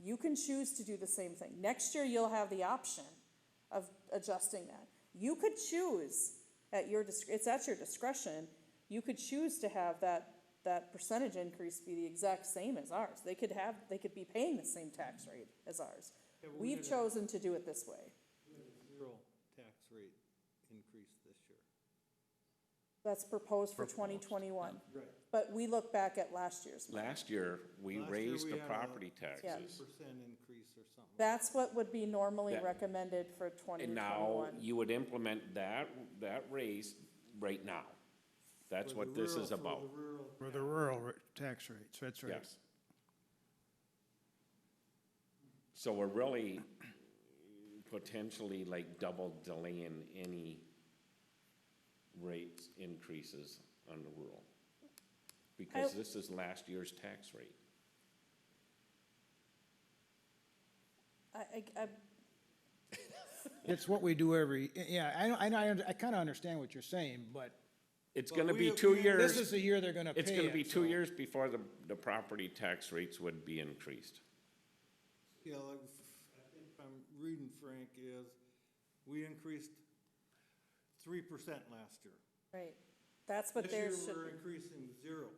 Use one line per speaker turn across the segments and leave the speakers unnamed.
You can choose to do the same thing. Next year, you'll have the option of adjusting that. You could choose at your, dis- it's at your discretion, you could choose to have that, that percentage increase be the exact same as ours. They could have, they could be paying the same tax rate as ours.
Yeah, but we
We've
did a-
chosen to do it this way.
Zero tax rate increase this year.
That's proposed for twenty twenty-one. But we look back at last year's.
Last year, we
Last year
raised
we
the
had a
property
Yeah.
taxes.
Percent increase or something.
That's what would be normally
That-
recommended for twenty
And now
twenty-one.
you would implement that, that raise right now. That's
For the
what this
rural-
is
for the
about.
rural
For the rural r- tax rates, that's right.
Yes. So we're really potentially like double delaying any rate increases on the rural. Because
I-
this is last year's tax rate.
I, I, I-
It's what we do every, yeah, I, I, I- I kind of understand what you're saying, but
It's
But
gonna be
we-
two
we-
years.
this is the year they're going to pay
It's gonna be
it.
two years before the, the property tax rates would be increased.
Yeah, like, I think if I'm reading Frank is, we increased three percent last year.
right, that's what theirs
This year,
should
we're
be.
increasing zero.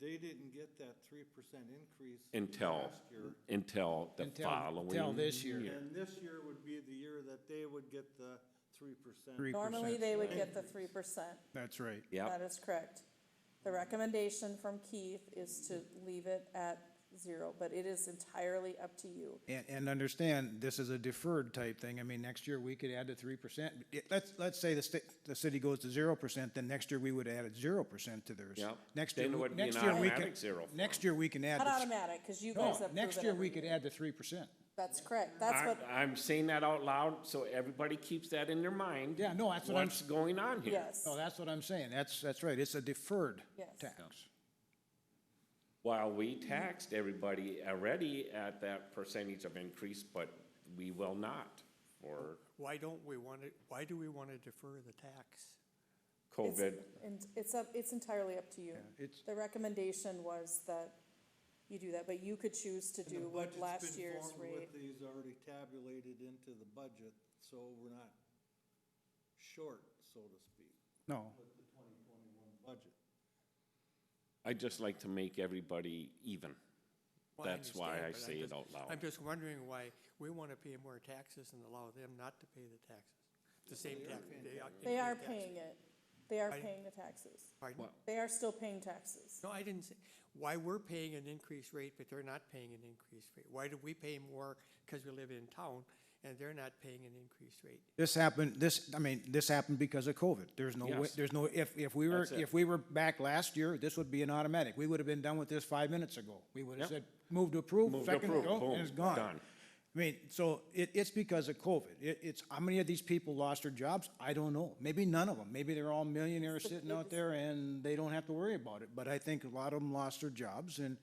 They didn't get that three percent increase.
Until,
last year,
until the
Until-
following.
until this year.
And this year would be the year that they would get the three percent.
Three.
Normally, they would get the three percent.
That's right.
Yep,
That is correct. The recommendation from Keith is to leave it at zero, but it is entirely up to you.
And, and understand, this is a deferred type thing. I mean, next year we could add to three percent. Let's, let's say the state, the city goes to zero percent, then next year we would add a zero percent to theirs.
Yep.
Next
Then
year,
it
we-
would be an
next year we
automatic
can,
zero for
next
them.
year we can add.
Not
the-
automatic, because you guys
No,
approve it
next year
every
we could add the three percent.
That's correct. That's
I,
what,
I'm saying that out loud, so everybody keeps that in their mind.
Yeah, no, that's what I'm,
What's going on here?
yes,
no, that's what I'm saying. That's, that's right. It's a deferred
Yes.
tax.
While we taxed everybody already at that percentage of increase, but we will not for
Why don't we want to, why do we want to defer the tax?
It's-
COVID.
and it's up, it's entirely up to you.
It's,
The recommendation was that you do that, but you could choose to do what last year's rate.
With these already tabulated into the budget, so we're not short, so to speak,
no,
with the twenty twenty-one budget.
I'd just like to make everybody even.
Well, I
That's why
understand,
I
but I'm
say it
just-
out loud.
I'm just wondering why we want to pay more taxes and allow them not to pay the taxes, the same tax.
They are paying it. They are
I-
paying the taxes.
Pardon?
They are still paying taxes.
No, I didn't say, why we're paying an increased rate, but they're not paying an increased rate. Why do we pay more because we live in town and they're not paying an increased rate?
This happened, this, I mean, this happened because of COVID. There's no way,
Yes.
there's no, if, if we were,
That's it.
if we were back last year, this would be an automatic. We would have been done with this five minutes ago. We would have
Yep.
said, move to approve,
Move to
second to
approve,
go,
boom,
and it's gone.
done.
I mean, so it, it's because of COVID. It, it's, how many of these people lost their jobs? I don't know. Maybe none of them. Maybe they're all millionaires sitting out there and they don't have to worry about it. But I think a lot of them lost their jobs and,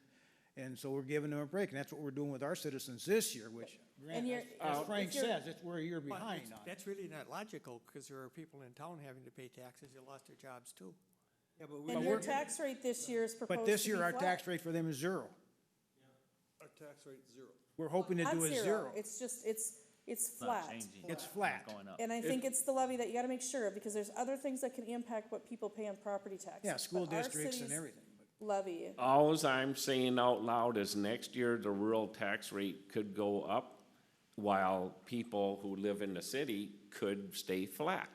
and so we're giving them a break. And that's what we're doing with our citizens this year, which,
And
Grant,
you're- uh,
as
if
as Frank
you're-
says, it's, we're a year
Well,
behind
it's-
on it.
That's really not logical because there are people in town having to pay taxes that lost their jobs too.
Yeah, but we,
And your tax rate this year is proposed
But
to
this
be
year, our
flat.
tax rate for them is zero.
our tax rate's zero.
We're hoping to
Not
do a zero.
It's just, it's, it's
not
flat.
changing.
It's flat.
Going up.
And I think it's the levy that you gotta make sure of, because there's other things that can impact what people pay on property taxes.
Yeah, school
But our
districts and
city's
everything.
Levy,
Alls I'm saying out loud is next year, the rural tax rate could go up while people who live in the city could stay flat.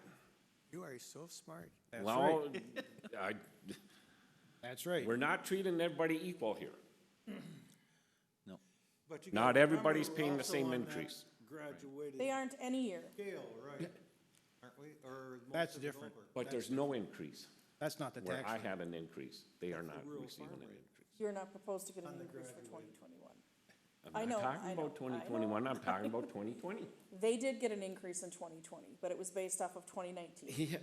You are so smart.
That's right.
Well, I,
That's right.
we're not treating everybody equal here.
But you
Not
gotta
everybody's
remember, we're
paying the
also
same
on that
increase.
Graduated
they aren't any year.
scale, right? Aren't we, or? most
That's
of it
different.
over?
But there's no increase.
That's not the
Where
tax.
I
rate.
had an increase, they are
That's
not
the rural
receiving an
farm rate.
increase.
You're not proposed to get an
On the
increase for twenty
graduated.
twenty-one. I
I'm
know,
not
I
talking
know, I
about
know.
twenty twenty-one, I'm talking about twenty twenty.
They did get an increase in twenty twenty, but it was based off of twenty nineteen.
Yeah,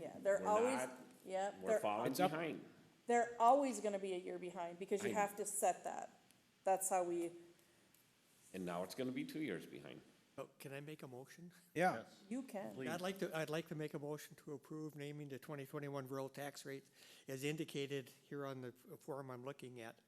Yeah, they're
We're
always,
not-
yeah,
we're
they're,
falling
It's up.
behind.
they're always gonna be a year behind, because you
I-
have to set that. That's how we,
And now it's gonna be two years behind.
Oh, Can I make a motion?
Yeah,
you can.
I'd like to, I'd like to make a motion to approve naming the 2021 rural tax rates as indicated here on the f- form I'm looking at